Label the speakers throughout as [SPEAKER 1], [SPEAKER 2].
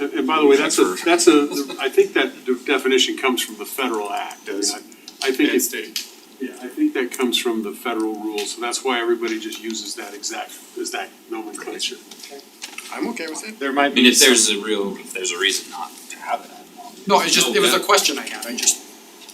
[SPEAKER 1] And by the way, that's a, that's a, I think that de- definition comes from the federal act. I mean, I- I think
[SPEAKER 2] And
[SPEAKER 1] it's,
[SPEAKER 2] state.
[SPEAKER 1] yeah, I think that comes from the federal rules, so that's why everybody just uses that exact, is that nomenclature.
[SPEAKER 2] I'm okay with it.
[SPEAKER 3] There might
[SPEAKER 4] I mean,
[SPEAKER 3] be
[SPEAKER 4] if there's
[SPEAKER 3] some,
[SPEAKER 4] a real, if there's a reason not to have it, I don't know.
[SPEAKER 2] No, it's just, it was a
[SPEAKER 4] No,
[SPEAKER 2] question I had, I just,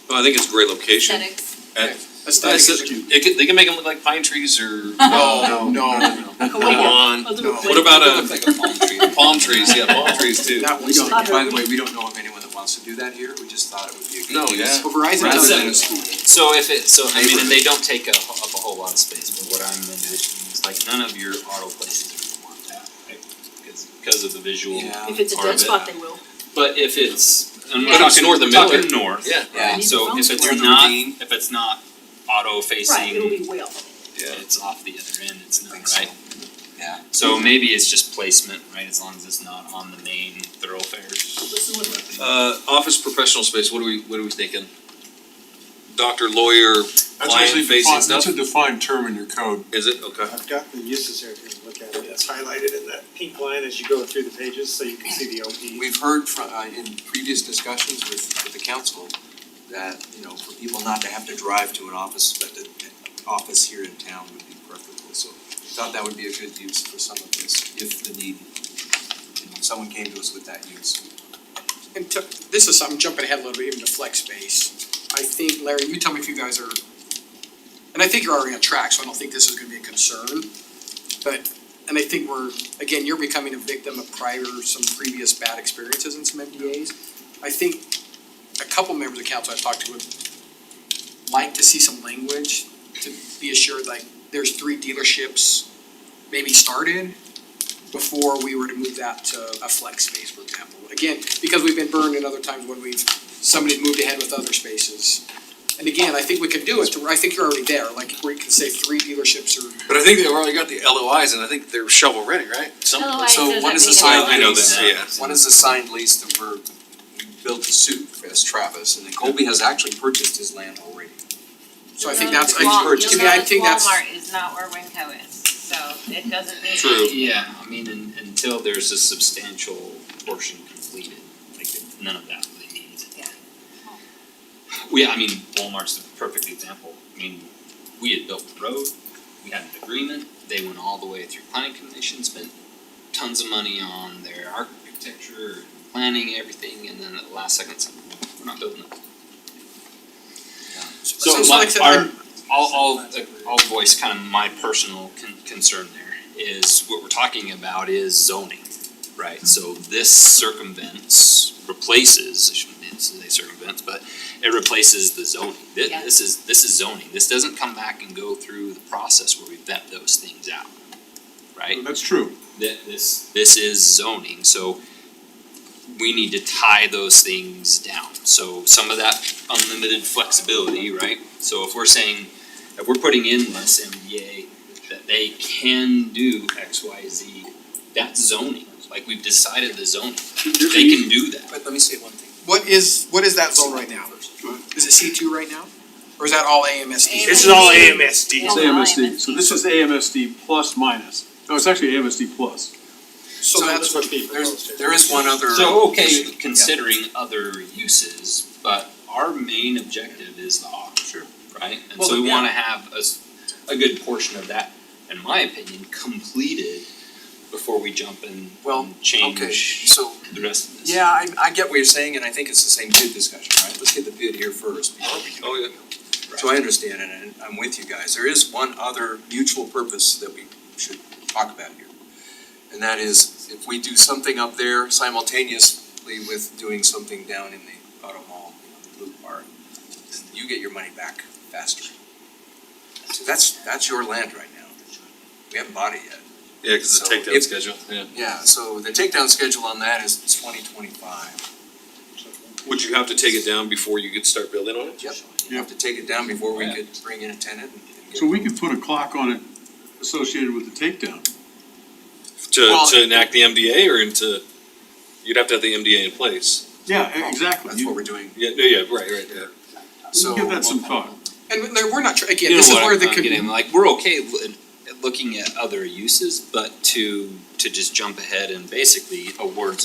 [SPEAKER 4] No, I think it's a great location.
[SPEAKER 5] Aesthetics.
[SPEAKER 4] And-
[SPEAKER 2] aesthetic
[SPEAKER 4] It's-
[SPEAKER 2] is cute.
[SPEAKER 4] it could- they can make them look like pine trees or.
[SPEAKER 2] No, no, no, no.
[SPEAKER 4] Come on.
[SPEAKER 2] No.
[SPEAKER 4] What about a, palm trees, yeah, palm trees too.
[SPEAKER 2] That
[SPEAKER 6] We
[SPEAKER 2] one's
[SPEAKER 6] don't,
[SPEAKER 2] not.
[SPEAKER 6] by the way, we don't know of anyone that wants to do that here, we just thought it would be a good.
[SPEAKER 4] No,
[SPEAKER 6] use.
[SPEAKER 4] yeah.
[SPEAKER 2] So Verizon
[SPEAKER 4] That's
[SPEAKER 2] does
[SPEAKER 4] a-
[SPEAKER 2] that in school.
[SPEAKER 4] So if it, so I mean, and they don't take a, ho- up a whole lot of space, but what I'm envisioning is like none of your auto places are gonna want that, right? Because, because of the visual.
[SPEAKER 6] Yeah.
[SPEAKER 7] If it's a
[SPEAKER 4] part of it.
[SPEAKER 7] dead spot, they will.
[SPEAKER 4] But if it's, and
[SPEAKER 7] Yeah.
[SPEAKER 4] we're talking north,
[SPEAKER 2] Talking
[SPEAKER 4] north. Yeah.
[SPEAKER 6] Yeah.
[SPEAKER 4] So if
[SPEAKER 7] Near
[SPEAKER 4] it's
[SPEAKER 6] the
[SPEAKER 4] not,
[SPEAKER 6] ravine.
[SPEAKER 4] if it's not auto facing.
[SPEAKER 7] Right, it'll be well.
[SPEAKER 4] it's off the other end, it's not,
[SPEAKER 6] Think so.
[SPEAKER 4] right?
[SPEAKER 6] Yeah.
[SPEAKER 4] So maybe it's just placement, right, as long as it's not on the main thoroughfares.
[SPEAKER 7] This is what-
[SPEAKER 8] Uh, office professional space, what are we, what are we thinking? Doctor, lawyer,
[SPEAKER 1] That's
[SPEAKER 8] Lion
[SPEAKER 1] actually
[SPEAKER 8] facing
[SPEAKER 1] defined,
[SPEAKER 8] stuff?
[SPEAKER 1] that's a defined term in your code.
[SPEAKER 8] is it, okay,
[SPEAKER 4] Uh,
[SPEAKER 9] I've got the uses here, if you can look at it, it's highlighted in that pink line as you go through the pages, so you can see the OP.
[SPEAKER 6] We've heard from, uh, in previous discussions with, with the council, that, you know, for people not to have to drive to an office, but the, the office here in town would be preferable, so we thought that would be a good use for some of this, if the need, you know, if someone came to us with that use.
[SPEAKER 2] And to, this is something, jumping ahead a little bit, even to flex space, I think, Larry, you tell me if you guys are, and I think you're already on track, so I don't think this is gonna be a concern, but, and I think we're, again, you're becoming a victim of prior, some previous bad experiences in some MDAs. I think a couple members of council I've talked to would like to see some language to be assured, like, there's three dealerships maybe started before we were to move that to a flex space, for example. Again, because we've been burned in other times when we've, somebody's moved ahead with other spaces. And again, I think we could do it, to where I think you're already there, like where you can say three dealerships or
[SPEAKER 8] but I think they've already got the LOIs and I think they're shovel ready, right? Some,
[SPEAKER 5] Otherwise,
[SPEAKER 6] So
[SPEAKER 5] does
[SPEAKER 6] what
[SPEAKER 5] that
[SPEAKER 6] is the
[SPEAKER 5] mean
[SPEAKER 6] signed
[SPEAKER 5] anything?
[SPEAKER 8] I know
[SPEAKER 6] lease?
[SPEAKER 8] that, yeah.
[SPEAKER 6] One is the signed lease that we're, we built the suit for this Travis, and then Colby has actually purchased his land already.
[SPEAKER 2] So I think that's, I
[SPEAKER 6] You'll
[SPEAKER 2] think,
[SPEAKER 6] notice
[SPEAKER 2] to me, I think that's,
[SPEAKER 5] Walmart is not where Winco is, so it doesn't mean.
[SPEAKER 4] Yeah, I mean, un until there's a substantial portion completed, like none of that really needs it.
[SPEAKER 5] Yeah.
[SPEAKER 4] Well, yeah, I mean, Walmart's the perfect example. I mean, we had built the road, we had an agreement, they went all the way through planning commission, spent tons of money on their architecture, planning, everything, and then at the last second, it's like, we're not building it. Um,
[SPEAKER 2] so
[SPEAKER 4] So
[SPEAKER 2] so
[SPEAKER 4] my,
[SPEAKER 2] like I said,
[SPEAKER 4] our,
[SPEAKER 2] I'm-
[SPEAKER 4] I'll, I'll, I'll voice kind of my personal con- concern there, is what we're talking about is zoning, right? So this circumvents, replaces, I shouldn't say circumvents, but it replaces the zoning. Thi-
[SPEAKER 5] Yeah.
[SPEAKER 4] This is, this is zoning, this doesn't come back and go through the process where we vet those things out, right?
[SPEAKER 1] That's true.
[SPEAKER 4] that this, this is zoning, so we need to tie those things down. So some of that unlimited flexibility, right? So if we're saying, if we're putting in this MDA that they can do X, Y, Z, that's zoning. Like we've decided the zoning, they can do that.
[SPEAKER 6] But let me say one thing.
[SPEAKER 2] what is, what is that zone right now? Is it C two right now? Or is that all AMSD?
[SPEAKER 5] This is all
[SPEAKER 9] AMSD.
[SPEAKER 1] It's
[SPEAKER 5] Yeah,
[SPEAKER 1] AMSD,
[SPEAKER 5] alignment.
[SPEAKER 1] so this is AMSD plus minus, no, it's actually AMSD plus.
[SPEAKER 2] So that's what,
[SPEAKER 9] being proposed
[SPEAKER 6] There's,
[SPEAKER 9] here.
[SPEAKER 6] there is one other.
[SPEAKER 4] So, okay,
[SPEAKER 6] issue.
[SPEAKER 4] considering other uses, but our main objective is the auto. Sure. Right? And so
[SPEAKER 6] Well,
[SPEAKER 4] we
[SPEAKER 6] yeah.
[SPEAKER 4] wanna have a, s- a good portion of that, in my opinion, completed before we jump and
[SPEAKER 6] Well,
[SPEAKER 4] and
[SPEAKER 6] Okay,
[SPEAKER 4] change
[SPEAKER 6] so,
[SPEAKER 4] the rest of this.
[SPEAKER 6] yeah, I, I get what you're saying, and I think it's the same bid discussion, right? Let's get the bid here first. before we do
[SPEAKER 8] Oh, yeah.
[SPEAKER 6] it. So I understand, and and I'm with you guys. There is one other mutual purpose that we should talk about here. And that is, if we do something up there simultaneously with doing something down in the auto mall, you know, the blue bar, then you get your money back faster. So that's, that's your land right now. We haven't bought it yet.
[SPEAKER 8] Yeah, cause the
[SPEAKER 6] So
[SPEAKER 8] takedown
[SPEAKER 6] if-
[SPEAKER 8] schedule, yeah.
[SPEAKER 6] Yeah, so the takedown schedule on that is twenty twenty-five.
[SPEAKER 8] Would you have to take it down before you could start building on it?
[SPEAKER 6] Yep. You have to take it down before we could bring in a tenant and. and get-
[SPEAKER 1] So we could put a clock on it associated with the takedown.
[SPEAKER 8] To,
[SPEAKER 2] Well-
[SPEAKER 8] to enact the MDA or into, you'd have to have the MDA in place.
[SPEAKER 1] Yeah, e- exactly,
[SPEAKER 6] That's what
[SPEAKER 1] you,
[SPEAKER 6] we're doing,
[SPEAKER 8] Yeah, no, yeah, right, right, yeah.
[SPEAKER 6] so.
[SPEAKER 1] give that some thought.
[SPEAKER 2] and Larry, we're not, tr- again,
[SPEAKER 4] You know
[SPEAKER 2] this is
[SPEAKER 4] what
[SPEAKER 2] where
[SPEAKER 4] I'm-
[SPEAKER 2] the.
[SPEAKER 4] I'm
[SPEAKER 2] could-
[SPEAKER 4] getting, like, we're okay li- looking at other uses, but to, to just jump ahead and basically award